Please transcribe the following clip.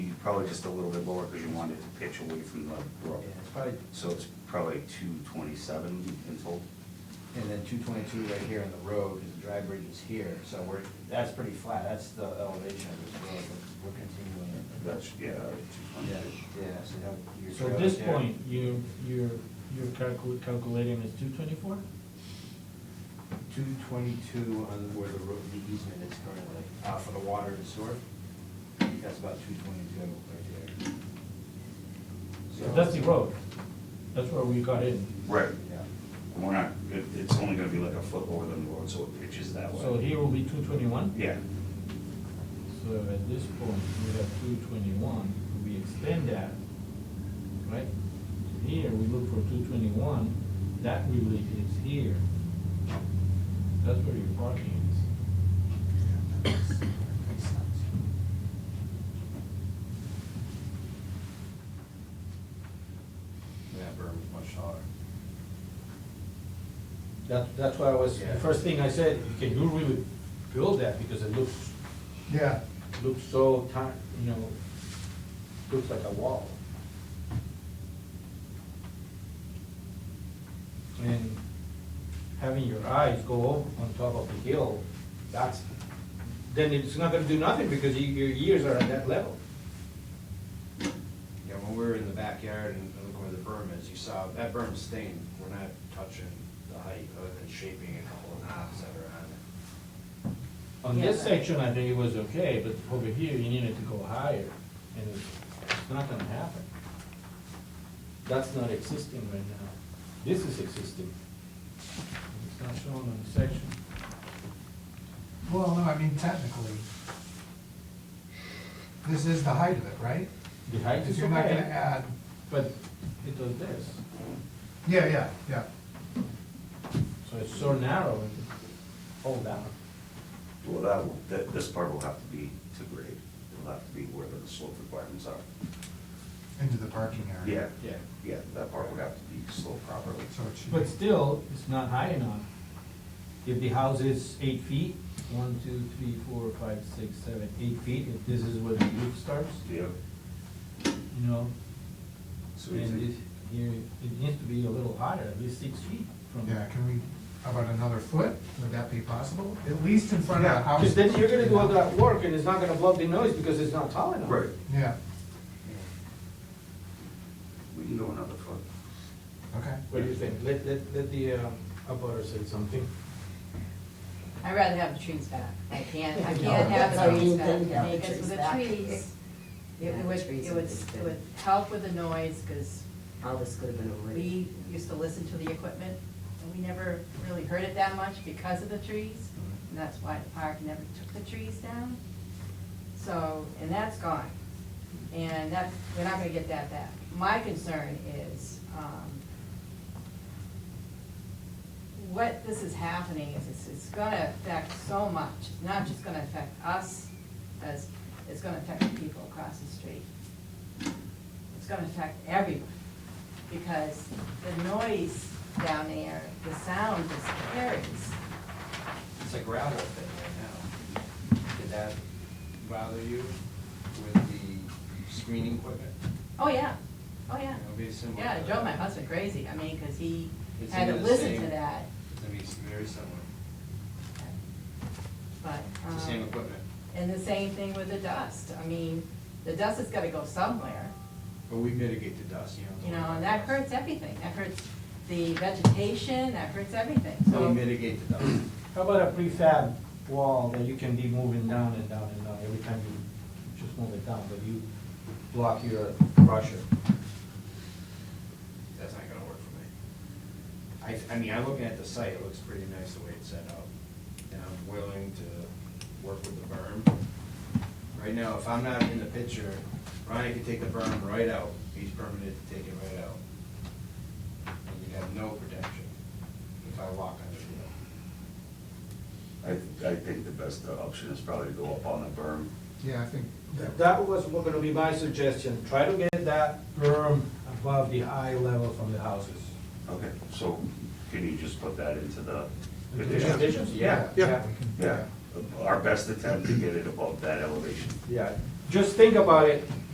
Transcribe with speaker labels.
Speaker 1: probably just a little bit lower because you wanted to pitch away from the
Speaker 2: Yeah,
Speaker 1: road.
Speaker 2: it's probably,
Speaker 1: So it's probably two twenty-seven in total.
Speaker 2: and then two twenty-two right here on the road, because the dry bridge is here, so we're, that's pretty flat, that's the elevation of this road, but we're continuing it.
Speaker 1: That's, yeah, two
Speaker 2: Yeah,
Speaker 1: twenty-two.
Speaker 2: yeah, so you have your.
Speaker 3: So at
Speaker 2: trails
Speaker 3: this
Speaker 2: there.
Speaker 3: point, you, you're, you're calcu- calculating as two twenty-four?
Speaker 2: Two twenty-two on where the road, the easement is currently, uh, for the water and sewer, that's about two twenty-two right there. So-
Speaker 3: That's the road, that's where we got in.
Speaker 1: Right,
Speaker 2: Yeah.
Speaker 1: and we're not, it, it's only gonna be like a foot lower than the road, so it pitches that
Speaker 3: So
Speaker 1: way.
Speaker 3: here will be two twenty-one?
Speaker 1: Yeah,
Speaker 3: So at this point, we have two twenty-one, we extend that, right? Here, we look for two twenty-one, that really is here. That's where your parking is.
Speaker 4: That berm is much taller.
Speaker 3: That, that's why I was,
Speaker 4: Yeah.
Speaker 3: the first thing I said, can you really build that, because it looks,
Speaker 5: Yeah,
Speaker 3: looks so tight, you know, looks like a wall. And having your eyes go over on top of the hill, that's, then it's not gonna do nothing because you- your ears are at that level.
Speaker 4: Yeah, when we were in the backyard and and looking where the berm is, you saw, that berm's stained, we're not touching the height other than shaping a couple of knobs that are on it.
Speaker 3: On this
Speaker 6: Yeah, but-
Speaker 3: section, I think it was okay, but over here, you needed to go higher, and it's- it's not gonna happen. That's not existing right now. This is existing. It's not shown on the section.
Speaker 5: well, no, I mean technically, this is the height of it, right?
Speaker 3: The height
Speaker 5: Because
Speaker 3: is
Speaker 5: you're not gonna
Speaker 3: okay,
Speaker 5: add,
Speaker 3: but it does this,
Speaker 5: yeah, yeah, yeah.
Speaker 3: so it's so narrow, it hold down.
Speaker 1: well, that, will- that, this part will have to be to grade. It'll have to be where the slope requirements are.
Speaker 5: Into the parking
Speaker 1: Yeah,
Speaker 5: area.
Speaker 3: Yeah.
Speaker 1: yeah, that part would have to be sloped properly.
Speaker 5: So it should.
Speaker 3: But still, it's not high enough. If the house is eight feet, one, two, three, four, five, six, seven, eight feet, if this is where the roof starts,
Speaker 1: Yeah.
Speaker 3: you know,
Speaker 1: So we
Speaker 3: And
Speaker 1: think-
Speaker 3: it, you, it needs to be a little higher, at least six feet from.
Speaker 5: Yeah, can we, how about another foot? Would that be possible? At least in front of the house.
Speaker 3: Because then you're gonna do all that work and it's not gonna block the noise because it's not tall enough.
Speaker 1: Right,
Speaker 5: Yeah,
Speaker 1: we can go another foot.
Speaker 5: okay.
Speaker 3: What do you think? Let, let, let the, uh, abutter say something.
Speaker 6: I'd rather have the trees back. I can't, I
Speaker 7: No,
Speaker 6: can't have
Speaker 7: that's how
Speaker 6: the
Speaker 7: you
Speaker 6: trees
Speaker 7: need
Speaker 6: back.
Speaker 7: them to have the
Speaker 6: Because
Speaker 7: trees
Speaker 6: with the
Speaker 7: back.
Speaker 6: trees, it
Speaker 7: Yeah,
Speaker 6: would,
Speaker 7: trees
Speaker 6: it
Speaker 7: are
Speaker 6: would,
Speaker 7: just
Speaker 6: it
Speaker 7: good.
Speaker 6: would help with the noise, because
Speaker 7: All this could have been
Speaker 6: we
Speaker 7: avoided.
Speaker 6: used to listen to the equipment, and we never really heard it that much because of the trees. And that's why the park never took the trees down. So, and that's gone. And that, we're not gonna get that back. My concern is, um, what this is happening is, it's, it's gonna affect so much, it's not just gonna affect us, as, it's gonna affect the people across the street. It's gonna affect everyone, because the noise down there, the sound just carries.
Speaker 4: It's a gravel pit right now. Did that bother you with the screening equipment?
Speaker 6: Oh, yeah, oh, yeah.
Speaker 4: It'll be similar
Speaker 6: Yeah, it
Speaker 4: to
Speaker 6: drove
Speaker 4: that.
Speaker 6: my husband crazy, I mean, cause he
Speaker 4: It's
Speaker 6: had to
Speaker 4: either the
Speaker 6: listen
Speaker 4: same-
Speaker 6: to that,
Speaker 4: I mean, it's very similar,
Speaker 6: but, um.
Speaker 4: it's the same equipment.
Speaker 6: And the same thing with the dust, I mean, the dust has gotta go somewhere.
Speaker 4: But we mitigate the dust, you know.
Speaker 6: You know, and that hurts everything, that hurts the vegetation, that hurts everything,
Speaker 4: We
Speaker 6: so.
Speaker 4: mitigate the dust.
Speaker 3: How about a prefab wall that you can be moving down and down and down every time you just move it down, but you block your crusher?
Speaker 4: That's not gonna work for me. I, I mean, I'm looking at the site, it looks pretty nice the way it's set up, and I'm willing to work with the berm. Right now, if I'm not in the picture, Ronnie could take the berm right out, he's permitted to take it right out. And you'd have no protection if I walk under it.
Speaker 1: I, I think the best option is probably to go up on the berm.
Speaker 5: Yeah, I think that,
Speaker 3: That was what gonna be my suggestion, try to get that berm above the eye level from the houses.
Speaker 1: Okay. So can you just put that into the condition?
Speaker 3: Conditions?
Speaker 5: yeah, we can,
Speaker 1: Yeah, our best attempt to get it above that elevation.
Speaker 3: Yeah, just think about it,